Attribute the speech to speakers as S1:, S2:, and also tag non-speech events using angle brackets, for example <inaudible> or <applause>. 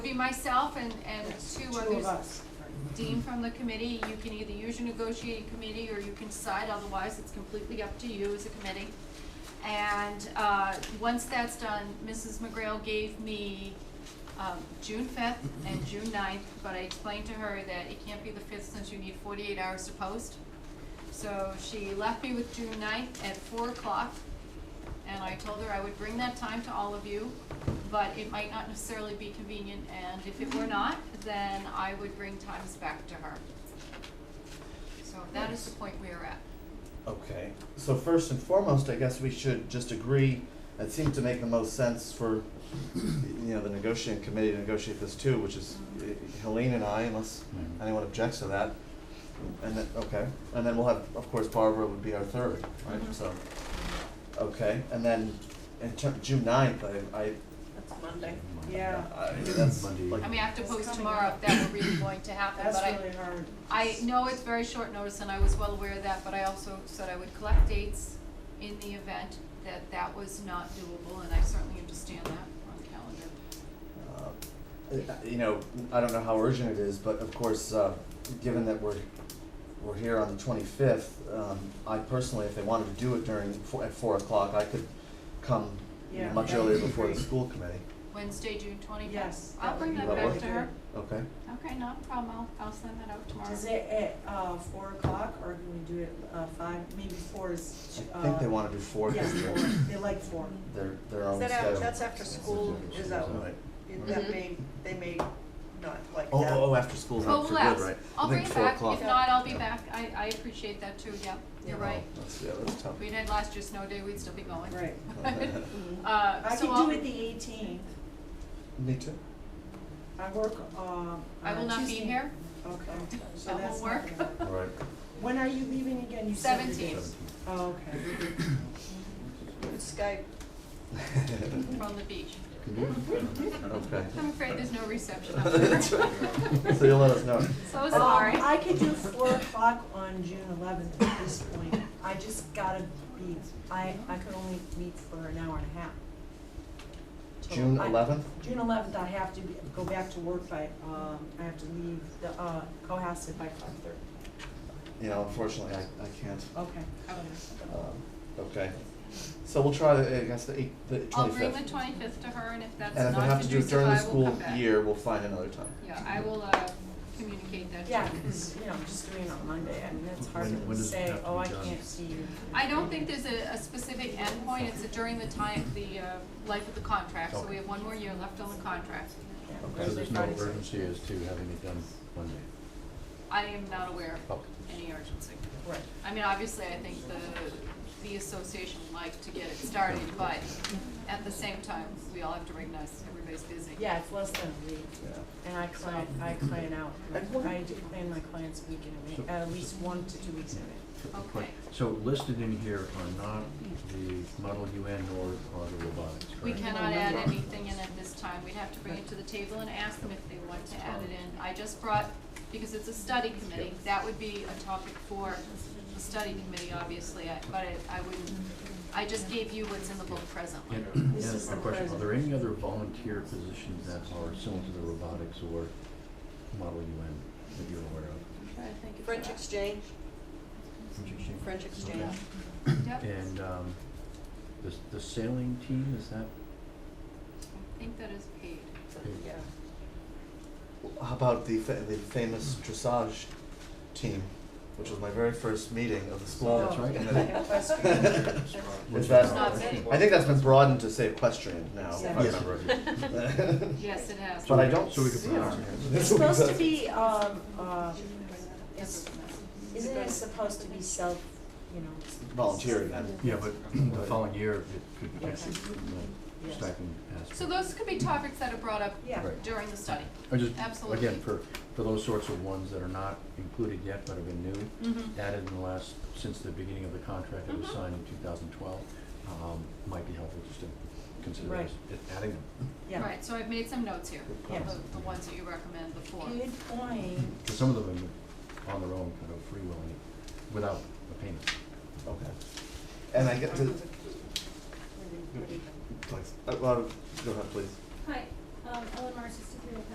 S1: myself and, and two others.
S2: Two of us.
S1: Dean from the committee, you can either use your negotiating committee or you can decide, otherwise it's completely up to you as a committee. And, uh, once that's done, Mrs. McGrail gave me, um, June fifth and June 9th, but I explained to her that it can't be the fifth since you need forty-eight hours to post. So she left me with June 9th at four o'clock, and I told her I would bring that time to all of you, but it might not necessarily be convenient, and if it were not, then I would bring times back to her. So that is the point we are at.
S3: Okay, so first and foremost, I guess we should just agree, it seems to make the most sense for, you know, the negotiating committee to negotiate this too, which is uh, Helene and I, unless
S4: Mhm.
S3: anyone objects to that. And then, okay, and then we'll have, of course, Barbara would be our third, right,
S1: Mhm.
S3: so, okay, and then in ter- June ninth, I, I,
S5: That's Monday.
S2: Yeah,
S3: I, that's
S4: Monday.
S3: like,
S1: I mean, I have to
S2: It's
S1: post
S2: coming
S1: tomorrow
S2: up.
S1: if that were really going to happen,
S2: that's
S1: but I,
S2: really hard.
S1: I know it's very short notice, and I was well aware of that, but I also said I would collect dates in the event that that was not doable, and I certainly understand that on calendar.
S3: uh, you know, I don't know how urgent it is, but of course, uh, given that we're, we're here on the twenty-fifth, um, I personally, if they wanted to do it during, four- at four o'clock, I could come
S2: Yeah,
S3: much
S2: that
S3: earlier
S2: would be
S3: before the
S2: great.
S3: school committee,
S1: Wednesday, June twenty-fifth.
S2: Yes,
S1: I'll
S2: that
S1: bring
S2: would
S1: that
S3: be
S1: back
S3: lovely.
S1: to her.
S3: okay?
S1: Okay, not a problem, I'll, I'll send that out tomorrow.
S2: Is it at, uh, four o'clock, or can we do it, uh, five, maybe four is, ch- uh.
S3: I think they wanna do four,
S2: Yeah,
S3: cause
S2: four,
S3: they're,
S2: they like four.
S3: they're, their
S5: Is
S3: own
S5: that
S3: schedule.
S5: after, that's after school is out.
S3: Right.
S5: It- That
S1: Mhm.
S5: may, they may not like that.
S3: Oh, oh, oh, after school's
S1: Well,
S3: out
S1: we'll
S3: for good,
S1: ask.
S3: right?
S1: I'll
S3: I
S1: bring
S3: think
S1: it
S3: four
S1: back,
S3: o'clock.
S1: if not, I'll be
S3: Yeah.
S1: back, I, I appreciate that too, yep, you're
S3: Oh, Oh,
S1: right.
S3: That's, yeah, that's tough.
S1: If we'd had last year's snow day, we'd still be going. <laughs>
S2: Right.
S1: Uh,
S2: I
S1: so
S2: could
S1: I'll,
S2: do it the eighteenth,
S3: Me too.
S2: I work, um,
S1: I will
S2: on
S1: not be
S2: Tuesday.
S1: here,
S2: Okay,
S1: <laughs>
S2: so
S1: That
S2: that's
S1: won't
S2: not
S1: work.
S2: gonna-
S3: All right.
S2: When are you leaving again, you said? you're
S1: seventeenth,
S2: leaving- Oh, okay,
S5: With Skype,
S1: <laughs>
S3: <laughs>
S1: from the beach.
S3: Mm-hmm.
S1: <laughs>
S3: Okay.
S1: I'm afraid there's no reception up there.
S3: <laughs> That's right. So you'll let us know.
S1: So
S2: Um,
S1: Oh, sorry.
S2: I could
S1: <laughs>
S2: do four o'clock on June eleventh at this point, I just gotta be, I, I could only meet for an hour and a half. So
S3: June
S2: I-
S3: eleventh?
S2: June eleventh, I have to be- go back to work by, um, I have to leave the, uh, Cohasset by five thirty.
S3: You know, unfortunately, I, I can't.
S2: Okay.
S3: Um, okay. So we'll try, the I guess, the eight, the
S1: I'll bring
S3: twenty-fifth.
S1: the twenty-fifth to her, and if that's
S3: And if we
S1: not
S3: have to do it during
S1: conducive, I
S3: the
S1: will come
S3: school
S1: back.
S3: year, we'll find another time.
S1: Yeah, I will, uh, communicate that to
S2: Yeah,
S1: you.
S2: 'cause, you know, I'm just doing it on Monday, I mean, it's hard
S4: When-
S2: to
S4: when does it
S2: say,
S4: have to
S2: oh,
S4: be
S2: I
S4: done?"
S2: can't see you.
S1: I don't think there's a, a specific endpoint, it's during the time, the, uh, life of the contract, so we have one more year left on the contract.
S2: Yeah,
S3: Okay.
S4: So
S2: Thursday,
S4: there's no
S2: Friday, Saturday.
S4: urgency as to having it done Monday.
S1: I am not aware of
S4: Okay.
S1: any urgency.
S2: Right.
S1: I mean, obviously, I think the, the association would like to get it started, but at the same time, we all have to recognize everybody's busy.
S2: Yeah, it's less than a week,
S3: Yeah.
S2: and I client, I client out,
S3: And what-
S2: I do plan my clients week in a week,
S4: So-
S2: at least one to two weeks in a
S4: So, but-
S1: Okay. Hmm.
S4: So listed in here are not the model UN or, or the robotics, correct?
S1: We cannot add anything in at this time, we'd have to bring it to the table and ask them if they want to add it in. I just brought, because it's a study committee, that would be a topic for the study committee, obviously, I- but I- I wouldn't, I just gave you what's in the book presently.
S4: And, and
S2: This is
S4: a
S2: the
S4: question, are
S2: present.
S4: there any other volunteer positions that are similar to the robotics or model UN that you're aware of?
S5: French exchange,
S4: Interesting.
S5: French exchange.
S1: Yep,
S4: And, um, the, the sailing team, is that,
S1: I think that is paid.
S5: Yeah.
S3: How about the fa- the famous dressage team, which was my very first meeting of the school
S4: That's right.
S3: committee?
S2: week.
S3: <laughs> Is
S1: It's not
S3: that,
S1: paid.
S3: I think that's been broadened to say equestrian now, if I
S2: Yes.
S3: remember.
S4: <laughs>
S1: Yes, it has.
S3: But I don't
S4: So we can
S3: see
S4: put
S3: it
S4: it
S3: on
S4: on.
S3: here.
S2: It's supposed to be, um, uh, it's, isn't it
S5: It's-
S2: supposed to be self, you know,
S3: Volunteer again.
S4: yeah, but <clears throat> the following year, it could potentially, you know,
S2: Yes.
S4: stipend aspect.
S1: So those could be topics that are brought up
S2: yeah.
S4: Right.
S1: during the study.
S4: I just,
S1: Absolutely.
S4: again, for, for those sorts of ones that are not included yet but have been new,
S2: Mm-hmm.
S1: Mhm.
S4: added in the last, since the beginning of the contract that was
S1: Mhm.
S4: signed in two thousand twelve, um, might be helpful just to consider
S2: Right.
S4: this, it- adding them.
S2: Yeah.
S1: Right, so I've made some notes here,
S2: Yeah.
S1: the, the ones that you recommend, the four.
S2: Good point.
S4: Because some of them are on their own, kind of free willing, without a payment.
S3: Okay. And I get to, uh, well, go ahead, please.
S6: Hi, um, Ellen Marsh, assistant